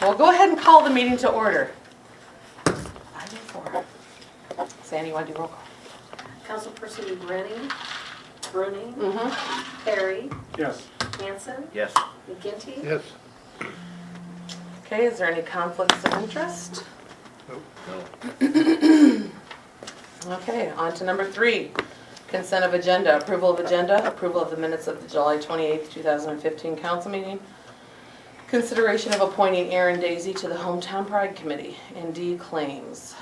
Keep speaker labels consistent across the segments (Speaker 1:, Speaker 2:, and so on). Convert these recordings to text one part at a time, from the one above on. Speaker 1: Well, go ahead and call the meeting to order. Item four. Sandy, you want to do roll call?
Speaker 2: Councilperson Brennan, Bruning,
Speaker 1: Mm-hmm.
Speaker 2: Perry,
Speaker 3: Yes.
Speaker 2: Hanson,
Speaker 4: Yes.
Speaker 2: McGinty.
Speaker 3: Yes.
Speaker 1: Okay, is there any conflicts of interest?
Speaker 4: No.
Speaker 1: Okay, on to number three. Consent of agenda, approval of agenda, approval of the minutes of the July 28th, 2015 council meeting. Consideration of appointing Aaron Daisy to the Hometown Pride Committee and D claims.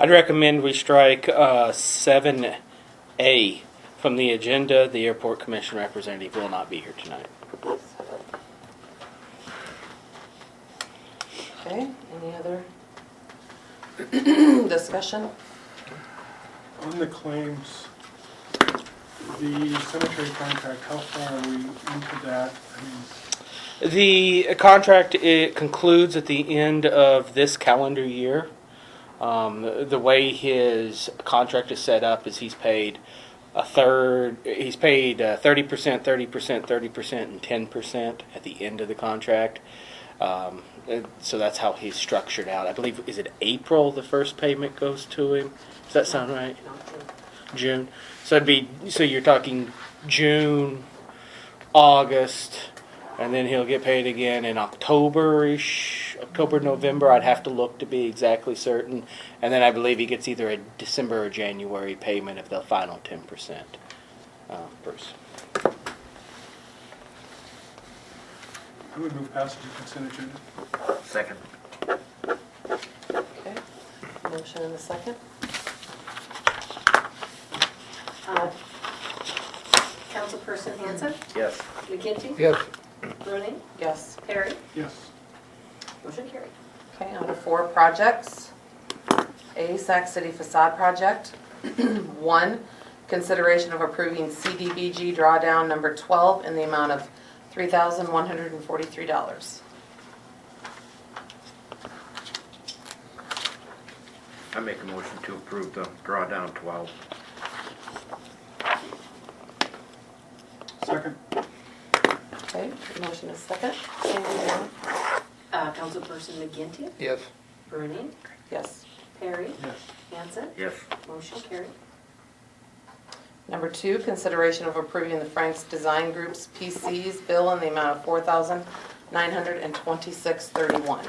Speaker 5: I'd recommend we strike uh, 7A from the agenda. The airport commission representative will not be here tonight.
Speaker 1: Okay, any other discussion?
Speaker 3: On the claims, the cemetery contract, how far are we into that? I mean,
Speaker 5: The contract it concludes at the end of this calendar year. Um, the, the way his contract is set up is he's paid a third. He's paid uh, thirty percent, thirty percent, thirty percent, and ten percent at the end of the contract. Um, and so that's how he's structured out. I believe is it April the first payment goes to him. Does that sound right? June. So it'd be so you're talking June, August, and then he'll get paid again in October-ish, October, November. I'd have to look to be exactly certain. And then I believe he gets either a December or January payment of the final ten percent. Uh, Bruce.
Speaker 3: I would move passage of consent agenda.
Speaker 4: Second.
Speaker 1: Okay, motion in a second.
Speaker 2: Uh, Councilperson Hanson,
Speaker 4: Yes.
Speaker 2: McGinty.
Speaker 3: Yes.
Speaker 2: Bruning,
Speaker 1: Yes.
Speaker 2: Perry,
Speaker 3: Yes.
Speaker 2: motion carried.
Speaker 1: Okay, on to four projects. A, Sac City facade project. One, consideration of approving CDBG drawdown number 12 in the amount of $3,143.
Speaker 4: I make a motion to approve the drawdown twelve.
Speaker 3: Second?
Speaker 1: Okay, motion is second.
Speaker 2: Uh, Councilperson McGinty,
Speaker 3: Yes.
Speaker 2: Bruning,
Speaker 1: Yes.
Speaker 2: Perry,
Speaker 3: Yes.
Speaker 2: Hanson,
Speaker 4: Yes.
Speaker 2: motion carried.
Speaker 1: Number two, consideration of approving the Frank's Design Group's PC's bill in the amount of $4,926.31.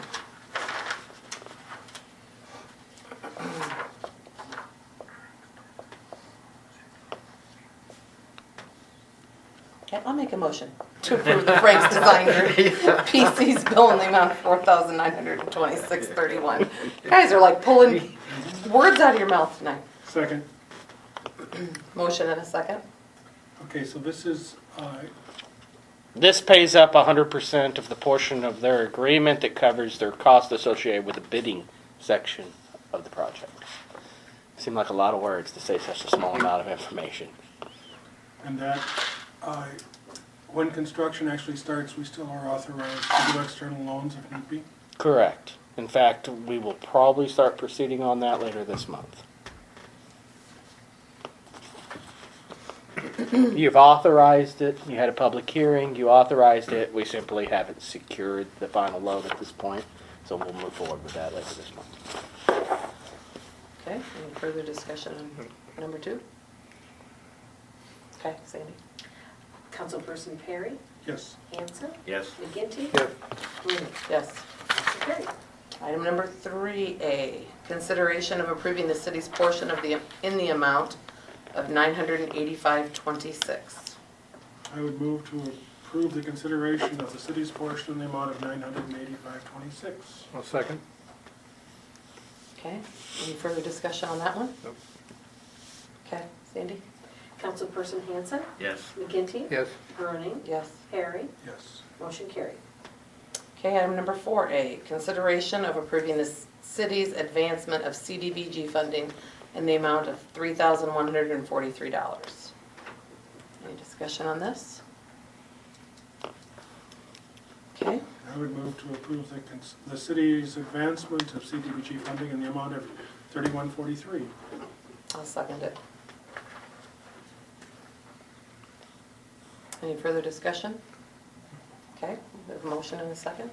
Speaker 1: Okay, I'll make a motion to approve the Frank's Design Group PC's bill in the amount of $4,926.31. You Guys are like pulling words out of your mouth tonight.
Speaker 3: Second.
Speaker 1: Motion and a second?
Speaker 3: Okay, so this is, uh,
Speaker 5: This pays up hundred percent of the portion of their agreement that covers their cost associated with the bidding section of the project. Seem like a lot of words to say such a small amount of information.
Speaker 3: and that, uh, when construction actually starts, we still are authorized to do external loans if need be.
Speaker 5: Correct. In fact, we will probably start proceeding on that later this month. You've authorized it, you had a public hearing, you authorized it, we simply haven't secured the final loan at this point, so we'll move forward with that later this month.
Speaker 1: Okay, any further discussion on number two? Okay, Sandy?
Speaker 2: Councilperson Perry,
Speaker 3: Yes.
Speaker 2: Hanson,
Speaker 4: Yes.
Speaker 2: McGinty.
Speaker 3: Yep.
Speaker 2: Bruning,
Speaker 1: Yes.
Speaker 2: motion carried.
Speaker 1: Item number three A, consideration of approving the city's portion of the, in the amount of nine hundred and eighty-five twenty-six.
Speaker 3: I would move to approve the consideration of the city's portion in the amount of nine hundred and eighty-five twenty-six.
Speaker 6: I'll second.
Speaker 1: Okay, any further discussion on that one? Nope. Okay, Sandy?
Speaker 2: Councilperson Hanson,
Speaker 4: Yes.
Speaker 2: McGinty.
Speaker 6: Yes.
Speaker 2: Bruning,
Speaker 1: Yes.
Speaker 2: Perry,
Speaker 3: Yes.
Speaker 2: motion carried.
Speaker 1: Okay, item number four A, consideration of approving the c- city's advancement of CDBG funding in the amount of three thousand one hundred and forty-three dollars. Any discussion on this? Okay,
Speaker 3: I would move to approve the, cons- the city's advancement of CDBG funding in the amount of thirty-one forty-three.
Speaker 1: I'll second it. Any further discussion? Okay, we have a motion and a second?